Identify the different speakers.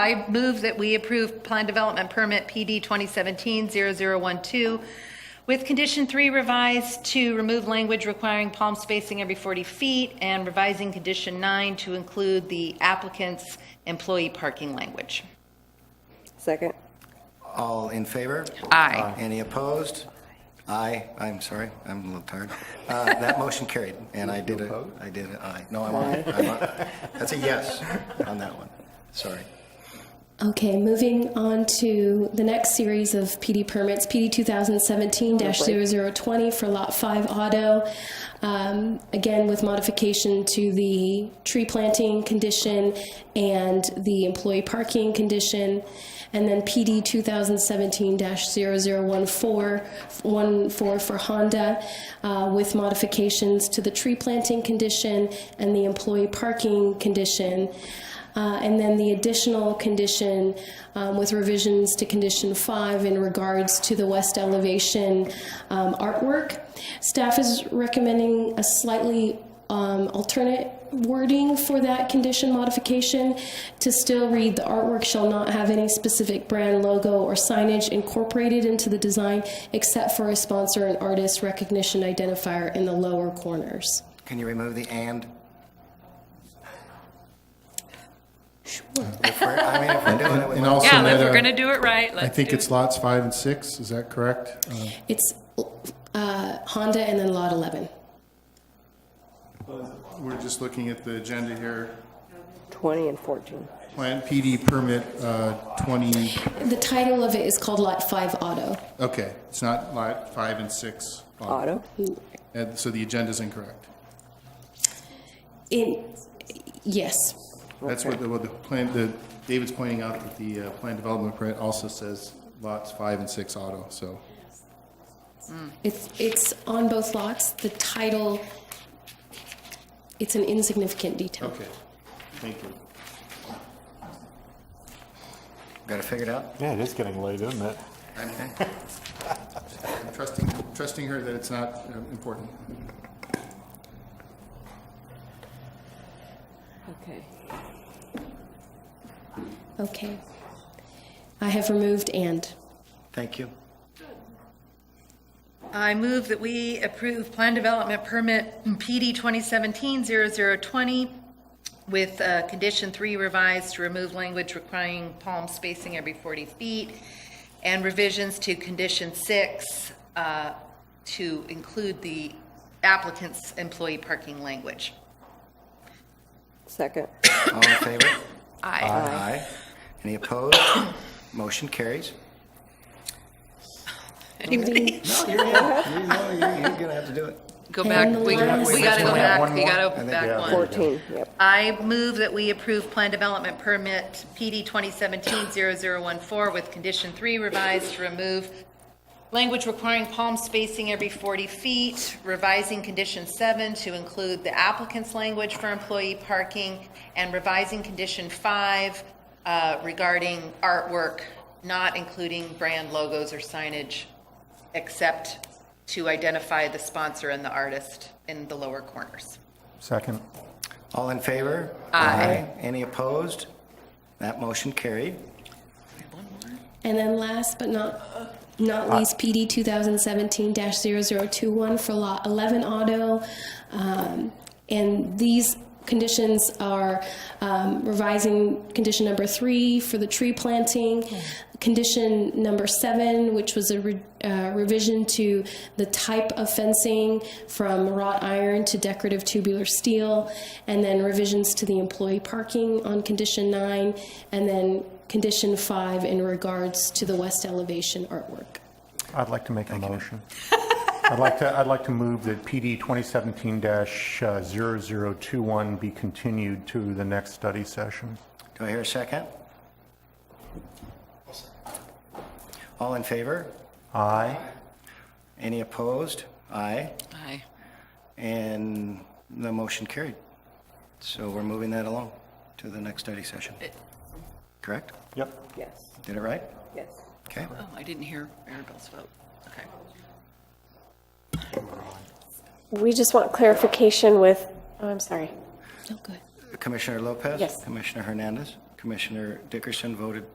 Speaker 1: I move that we approve Plan Development Permit PD 2017-0012 with Condition 3 revised to remove language requiring palm spacing every 40 feet and revising Condition 9 to include the applicant's employee parking language.
Speaker 2: Second.
Speaker 3: All in favor?
Speaker 1: Aye.
Speaker 3: Any opposed? Aye, I'm sorry, I'm a little tired. Uh, That motion carried, and I did a, I did a aye. No, I'm, a- I'm, a- that's a yes on that one, sorry.
Speaker 4: Okay, moving on to the next series of PD permits, PD 2017-0020 for Lot 5 Auto. Um, Again, with modification to the tree planting condition and the employee parking condition. And then PD 2017-0014 for Honda uh, with modifications to the tree planting condition and the employee parking condition. Uh, And then the additional condition um, with revisions to condition five in regards to the west elevation um, artwork. Staff is recommending a slightly um, alternate wording for that condition modification to still read the artwork shall not have any specific brand logo or signage incorporated into the design except for a sponsor and artist recognition identifier in the lower corners.
Speaker 3: Can you remove the "and"? If we're- I mean, if we're doing it with-
Speaker 5: And also
Speaker 6: Yeah, if
Speaker 5: that,
Speaker 6: we're
Speaker 5: uh,
Speaker 6: going to do it right,
Speaker 5: I
Speaker 6: let's do
Speaker 5: think it's
Speaker 6: it.
Speaker 5: lots five and six, is that correct? Uh,
Speaker 4: It's uh, Honda and then Lot 11.
Speaker 5: We're just looking at the agenda here.
Speaker 2: 20 and 14.
Speaker 5: Plan PD permit uh, 20,
Speaker 4: The title of it is called Lot 5 Auto.
Speaker 5: okay, it's not lot five and six. Uh,
Speaker 2: Auto.
Speaker 5: And so the agenda's incorrect.
Speaker 4: In, yes.
Speaker 5: That's what the, what the plan, the, David's pointing out that the uh, plan development permit also says lots five and six auto, so.
Speaker 4: It's, it's on both lots. The title, it's an insignificant detail.
Speaker 5: Okay, thank you.
Speaker 3: Got it figured out?
Speaker 7: Yeah, it is getting late, isn't it?
Speaker 5: I'm trusting, trusting her that it's not um, important.
Speaker 2: Okay.
Speaker 4: Okay. I have removed and.
Speaker 3: Thank you.
Speaker 1: I move that we approve Plan Development Permit PD 2017-0020 with uh, Condition 3 revised to remove language requiring palm spacing every 40 feet and revisions to Condition 6 uh, to include the applicant's employee parking language.
Speaker 2: Second.
Speaker 3: All in favor?
Speaker 1: Aye.
Speaker 3: Aye. Any opposed? Motion carries.
Speaker 4: Anybody?
Speaker 3: No, you're, you're, no, you're you're gonna have to do it.
Speaker 1: Go back,
Speaker 4: And the
Speaker 1: we we
Speaker 4: last-
Speaker 1: gotta go
Speaker 7: We
Speaker 1: back,
Speaker 7: have one
Speaker 1: we
Speaker 7: more?
Speaker 3: I
Speaker 1: gotta
Speaker 3: think,
Speaker 1: back
Speaker 7: yeah.
Speaker 1: one.
Speaker 2: 14, yep.
Speaker 1: I move that we approve Plan Development Permit PD 2017-0014 with Condition 3 revised to remove language requiring palm spacing every 40 feet, revising Condition 7 to include the applicant's language for employee parking, and revising Condition 5 uh, regarding artwork, not including brand logos or signage, except to identify the sponsor and the artist in the lower corners.
Speaker 7: Second.
Speaker 3: All in favor? Aye. Any opposed? That motion carried.
Speaker 4: And then last but not, not least, PD 2017-0021 for Lot 11 Auto. Um, And these conditions are um, revising condition number three for the tree planting, condition number seven, which was a re- uh, revision to the type of fencing from wrought iron to decorative tubular steel, and then revisions to the employee parking on condition nine, and then condition five in regards to the west elevation artwork.
Speaker 7: I'd like to make a motion. I'd like to, I'd like to move that PD uh, 2017-0021 be continued to the next study session.
Speaker 3: Do I hear a second? All in favor?
Speaker 7: Aye.
Speaker 3: Any opposed? Aye.
Speaker 6: Aye.
Speaker 3: And the motion carried. So we're moving that along to the next study session. Correct?
Speaker 7: Yep.
Speaker 2: Yes,
Speaker 3: Did it right?
Speaker 2: yes.
Speaker 3: Okay.
Speaker 6: Oh, I didn't hear Maribel's vote. Okay.
Speaker 8: We just want clarification with, oh, I'm sorry.
Speaker 4: Oh, good.
Speaker 3: Commissioner Lopez?
Speaker 8: Yes.
Speaker 3: Commissioner Hernandez? Commissioner Dickerson voted